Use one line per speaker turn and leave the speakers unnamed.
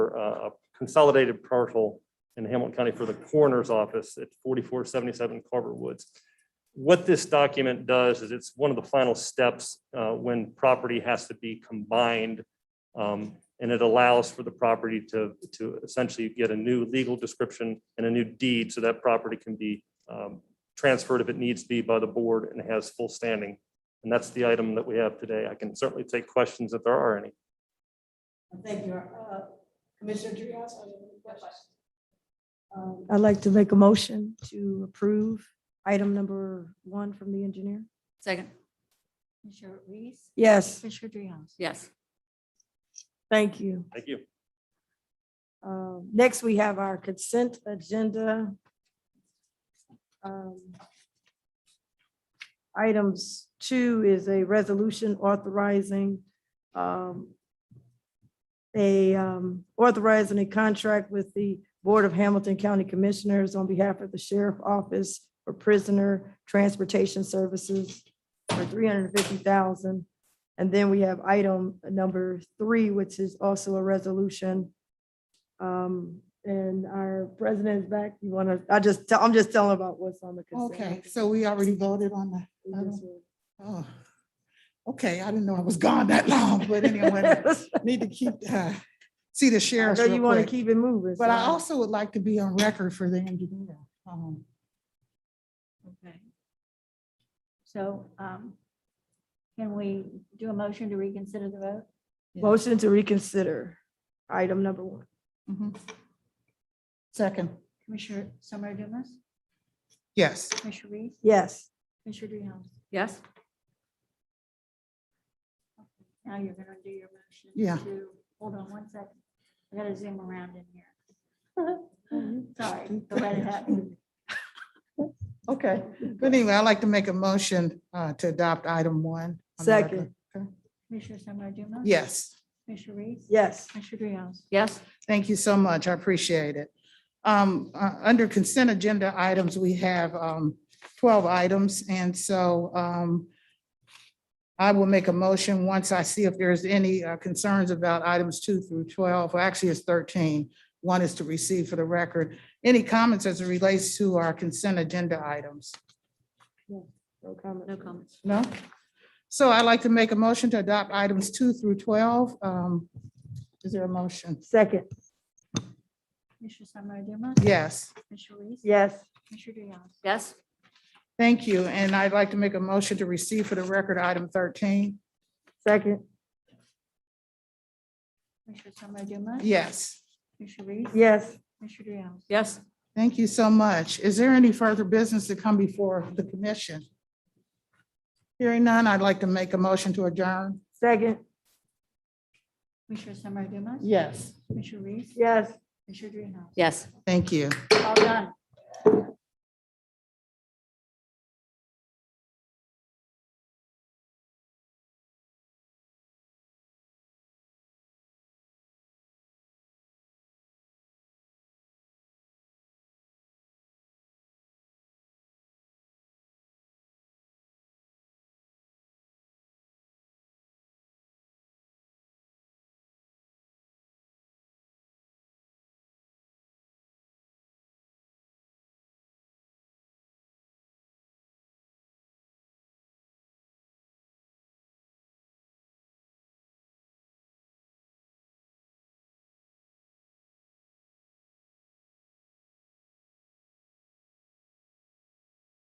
for uh, a consolidated parcel in Hamilton County for the coroner's office at forty-four seventy-seven Carver Woods. What this document does is it's one of the final steps uh, when property has to be combined. um, And it allows for the property to, to essentially get a new legal description and a new deed, so that property can be um, transferred if it needs to be by the board and has full standing. And that's the item that we have today. I can certainly take questions if there are any.
Thank you. Uh, Commissioner Dreehouse, I have a question.
Um, I'd like to make a motion to approve item number one from the engineer.
Second.
Commissioner Reese?
Yes,
Commissioner Dreehouse?
Yes.
thank you.
Thank you.
Um, Next, we have our consent agenda. Um, Items two is a resolution authorizing um, a um, authorizing a contract with the Board of Hamilton County Commissioners on behalf of the Sheriff Office for Prisoner Transportation Services for three hundred and fifty thousand. And then we have item number three, which is also a resolution um, and our president's back. You want to, I just, tell I'm just telling about what's on the
Okay,
consent.
so we already voted on the,
We just will-
oh, okay, I didn't know I was gone that long, but anyway, need to keep, uh, see the
I
sheriff.
know you want to keep it moving.
But I
so-
also would like to be on record for the engineer. Um,
Okay. So um, can we do a motion to reconsider the vote?
Motion to reconsider item number one.
Second,
Commissioner Summer Dumas?
yes,
Commissioner Reese?
Yes,
Commissioner Dreehouse?
Yes.
Now you're gonna do your motion.
Yeah.
to- Hold on one second. I gotta zoom around in here. Sorry, go right ahead.
okay. But anyway, I'd like to make a motion uh, to adopt item one. on the record.
Second.
Commissioner Summer Dumas?
Yes.
Commissioner Reese?
yes.
Commissioner Dreehouse?
Yes.
Thank you so much. I appreciate it. Um, uh, under consent agenda items, we have, um, twelve items, and so, um, I will make a motion once I see if there's any uh, concerns about items two through twelve, Well, actually it's thirteen. One is to receive for the record. Any comments as it relates to our consent agenda items?
No comment.
No comments.
No? So I'd like to make a motion to adopt items two through twelve. Um, is there a motion?
Second,
Commissioner Summer Dumas?
Yes.
Commissioner Reese?
yes.
Commissioner Dreehouse?
Yes.
Thank you, and I'd like to make a motion to receive for the record item thirteen.
Second,
Commissioner Summer Dumas?
Yes,
Commissioner Reese?
yes.
Commissioner Dreehouse?
Yes.
thank you so much. Is there any further business to come before the commission? Hearing none, I'd like to make a motion to adjourn.
Second,
Commissioner Summer Dumas?
Yes.
Commissioner Reese?
yes.
Commissioner Dreehouse?
Yes.
Thank you.
All done.